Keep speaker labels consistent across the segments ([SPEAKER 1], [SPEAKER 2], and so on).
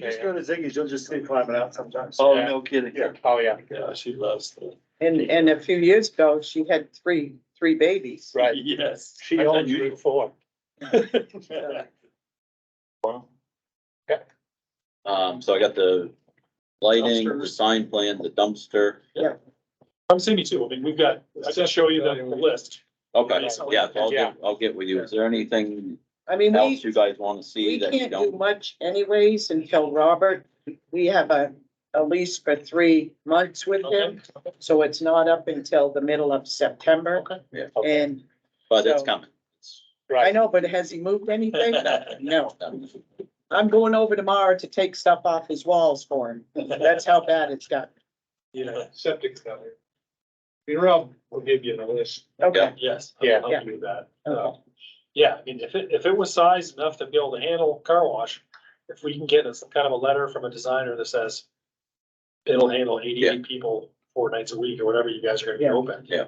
[SPEAKER 1] You just go to Ziggy's, you'll just see climbing out sometimes.
[SPEAKER 2] Oh,
[SPEAKER 3] Yeah.
[SPEAKER 2] no kidding.
[SPEAKER 1] Yeah.
[SPEAKER 3] Oh, yeah.
[SPEAKER 2] Yeah, she loves the,
[SPEAKER 4] And, and a few years ago, she had three, three babies.
[SPEAKER 3] Right.
[SPEAKER 2] yes.
[SPEAKER 3] She
[SPEAKER 2] That's
[SPEAKER 3] owns
[SPEAKER 2] unusual.
[SPEAKER 3] Route Four.
[SPEAKER 2] Wow.
[SPEAKER 5] Um, so I got the lighting, the
[SPEAKER 2] Dumpster.
[SPEAKER 5] sign plan, the dumpster.
[SPEAKER 2] Come see me too. I mean, we've got, I just show you the the list.
[SPEAKER 5] Okay, yeah, so I'll
[SPEAKER 3] Yeah.
[SPEAKER 5] get, I'll get with you. Is there anything
[SPEAKER 4] I mean,
[SPEAKER 5] else
[SPEAKER 4] we,
[SPEAKER 5] you guys wanna see
[SPEAKER 4] we
[SPEAKER 5] that you
[SPEAKER 4] can't do
[SPEAKER 5] don't?
[SPEAKER 4] much anyways until Robert, we have a, a lease for three months with him. So it's not up until the middle of September.
[SPEAKER 5] Yeah.
[SPEAKER 4] And
[SPEAKER 5] But it's
[SPEAKER 4] so-
[SPEAKER 5] coming. It's-
[SPEAKER 4] I
[SPEAKER 3] Right.
[SPEAKER 4] know, but has he moved anything? No. I'm going over tomorrow to take stuff off his walls for him. That's how bad it's got.
[SPEAKER 2] Yeah,
[SPEAKER 6] septic failure. I mean, Rob will give you the list.
[SPEAKER 4] Okay,
[SPEAKER 2] yes.
[SPEAKER 3] Yeah.
[SPEAKER 2] I'll do that. Uh,
[SPEAKER 4] Okay.
[SPEAKER 2] Yeah, I mean, if it, if it was sized enough to be able to handle car wash, if we can get a- some kind of a letter from a designer that says it'll handle
[SPEAKER 5] Yeah.
[SPEAKER 2] eighty-eight people four nights a week or whatever you guys are gonna be
[SPEAKER 4] Yeah.
[SPEAKER 2] open.
[SPEAKER 5] Yeah.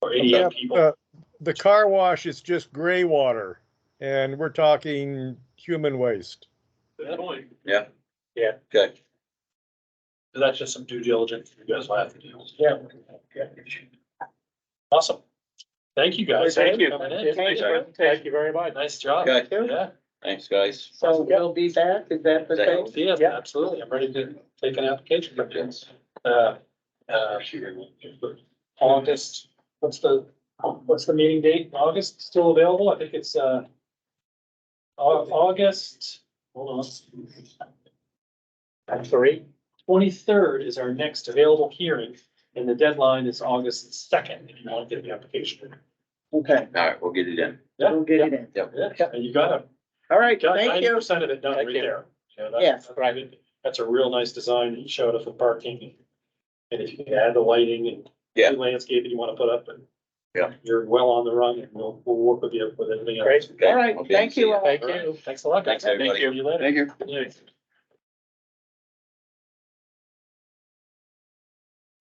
[SPEAKER 2] Or
[SPEAKER 6] Yeah,
[SPEAKER 2] eighty-eight people.
[SPEAKER 6] uh, The car wash is just gray water and we're talking human waste.
[SPEAKER 2] Good point.
[SPEAKER 5] Okay,
[SPEAKER 2] That's just some due diligence you guys will have to do. Yeah. Awesome. Thank you guys.
[SPEAKER 3] Thank you.
[SPEAKER 2] Coming in.
[SPEAKER 3] Thank you. Thank you very much.
[SPEAKER 2] Nice job.
[SPEAKER 5] okay,
[SPEAKER 2] Yeah.
[SPEAKER 5] thanks, guys.
[SPEAKER 4] so we'll be back, is that the thing?
[SPEAKER 2] Yeah,
[SPEAKER 3] Yeah.
[SPEAKER 2] absolutely. I'm ready to take an application. from you.
[SPEAKER 5] Yes.
[SPEAKER 2] Uh, uh, August, what's the, what's the meeting date? in August still available? I think it's, uh, Au- August, hold on.
[SPEAKER 3] Three.
[SPEAKER 2] Twenty-third is our next available hearing and the deadline is August second, if you want to get the application.
[SPEAKER 4] Okay,
[SPEAKER 5] All right, we'll get it in.
[SPEAKER 4] we'll get it in.
[SPEAKER 2] Yeah, and you got it.
[SPEAKER 4] All right,
[SPEAKER 2] Got
[SPEAKER 4] thank
[SPEAKER 2] ninety
[SPEAKER 4] you.
[SPEAKER 2] percent of it done
[SPEAKER 3] Thank
[SPEAKER 2] right
[SPEAKER 3] you.
[SPEAKER 2] there. You know, that's-
[SPEAKER 4] Yes.
[SPEAKER 2] that's Right, that's a real nice design. You showed us the parking. And if you can add the lighting and
[SPEAKER 5] Yeah.
[SPEAKER 2] the landscape that you wanna put up and
[SPEAKER 5] Yeah.
[SPEAKER 2] you're well on the run and we'll, we'll work with you with everything else.
[SPEAKER 3] Great.
[SPEAKER 5] Okay,
[SPEAKER 4] All right,
[SPEAKER 5] I'll be in
[SPEAKER 4] thank
[SPEAKER 5] to see
[SPEAKER 4] you
[SPEAKER 5] ya.
[SPEAKER 4] all.
[SPEAKER 3] Thank
[SPEAKER 5] All right.
[SPEAKER 3] you.
[SPEAKER 2] Thanks a lot, guys.
[SPEAKER 5] Thanks, everybody.
[SPEAKER 2] See you later.
[SPEAKER 5] Thank you.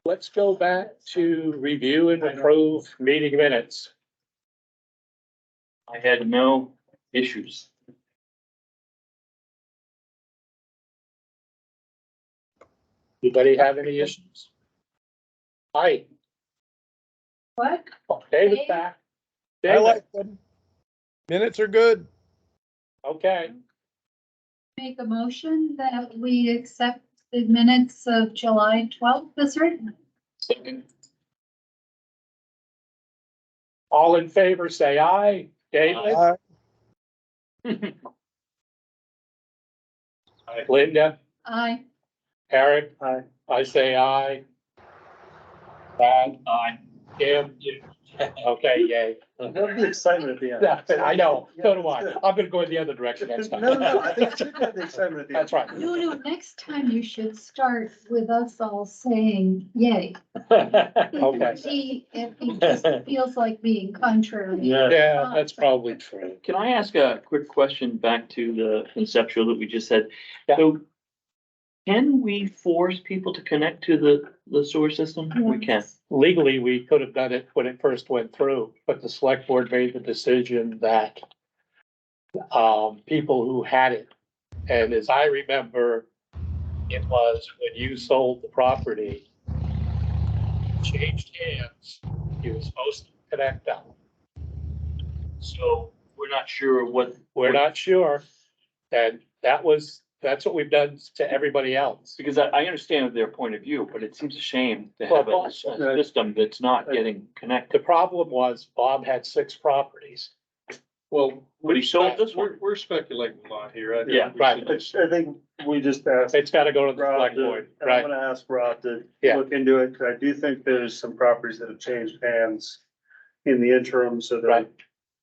[SPEAKER 3] Let's go back to review and approve meeting minutes.
[SPEAKER 7] I had no issues.
[SPEAKER 3] Anybody have any issues? Hi,
[SPEAKER 8] What?
[SPEAKER 3] David's back.
[SPEAKER 6] I
[SPEAKER 3] David,
[SPEAKER 6] like them. Minutes are good.
[SPEAKER 3] okay,
[SPEAKER 8] Make a motion that we accept the minutes of July twelfth as written.
[SPEAKER 3] all in favor, say aye. David,
[SPEAKER 6] I-
[SPEAKER 3] Linda,
[SPEAKER 8] Aye.
[SPEAKER 3] Eric,
[SPEAKER 1] Aye.
[SPEAKER 3] I say aye. Brad,
[SPEAKER 7] Aye.
[SPEAKER 3] Kim, you- okay, yay.
[SPEAKER 1] Love the excitement at the end.
[SPEAKER 3] Yeah, I know, so do I. I'm gonna go in the other direction next
[SPEAKER 1] No,
[SPEAKER 3] time.
[SPEAKER 1] no, no, I think you should have the excitement at the end.
[SPEAKER 3] That's right.
[SPEAKER 8] No, no, next time you should start with us all saying yay.
[SPEAKER 3] Okay,
[SPEAKER 8] He, if he just feels like being contrary.
[SPEAKER 2] Yeah.
[SPEAKER 3] yeah, that's probably true.
[SPEAKER 7] Can I ask a quick question back to the conceptual that we just had?
[SPEAKER 3] Yeah.
[SPEAKER 7] So can we force people to connect to the, the sewer system? We can.
[SPEAKER 3] Legally, we could have done it when it first went through, but the select board made the decision that um, people who had it, and as I remember, it was when you sold the property, changed hands, you were supposed to connect them.
[SPEAKER 7] So we're not sure what.
[SPEAKER 3] We're not sure. And that was, that's what we've done to everybody else.
[SPEAKER 7] Because I, I understand their point of view, but it seems a shame to
[SPEAKER 3] Well,
[SPEAKER 7] have a a
[SPEAKER 3] also-
[SPEAKER 7] system that's not getting
[SPEAKER 3] The
[SPEAKER 7] connected.
[SPEAKER 3] problem was Bob had six properties.
[SPEAKER 6] Well,
[SPEAKER 7] But he sold this one.
[SPEAKER 6] we're speculating a lot here.
[SPEAKER 7] think Yeah,
[SPEAKER 3] right.
[SPEAKER 1] Which I think we just asked.
[SPEAKER 3] It's gotta go to the
[SPEAKER 1] Rob
[SPEAKER 3] select
[SPEAKER 1] to-
[SPEAKER 3] board,
[SPEAKER 1] and I'm
[SPEAKER 3] right?
[SPEAKER 1] gonna ask Rob to
[SPEAKER 3] Yeah.
[SPEAKER 1] look into it, 'cause I do think there's some properties that have changed hands in the interim, so there,
[SPEAKER 3] Right.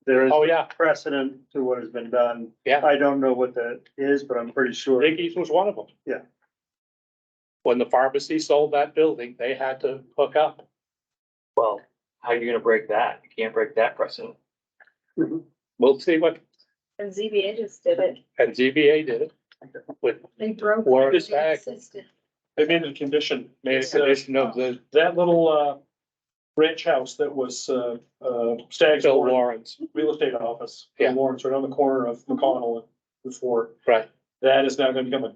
[SPEAKER 1] there is
[SPEAKER 3] Oh, yeah.
[SPEAKER 1] precedent to what has been done.
[SPEAKER 3] Yeah.
[SPEAKER 1] I don't know what that is, but I'm pretty sure.
[SPEAKER 3] Ziggy's was one of them.
[SPEAKER 1] Yeah.
[SPEAKER 3] When the pharmacy sold that building, they had to hook up.
[SPEAKER 7] Well, how are you gonna break that? You can't break that precedent.
[SPEAKER 3] We'll see what,
[SPEAKER 9] And ZBA just did it.
[SPEAKER 3] and ZBA did it. With,
[SPEAKER 8] They broke.
[SPEAKER 3] Word
[SPEAKER 8] the
[SPEAKER 3] is back.
[SPEAKER 8] system.
[SPEAKER 2] They made it a condition.
[SPEAKER 3] made a
[SPEAKER 2] It's, uh,
[SPEAKER 3] condition of the
[SPEAKER 2] That little, uh, ranch house that was, uh, uh, Stag's
[SPEAKER 3] Bill
[SPEAKER 2] Warren
[SPEAKER 3] Warren's,
[SPEAKER 2] real estate office. in
[SPEAKER 3] Yeah.
[SPEAKER 2] Lawrence, right on the corner of McConnell and Ford.
[SPEAKER 3] right?
[SPEAKER 2] That is now gonna become a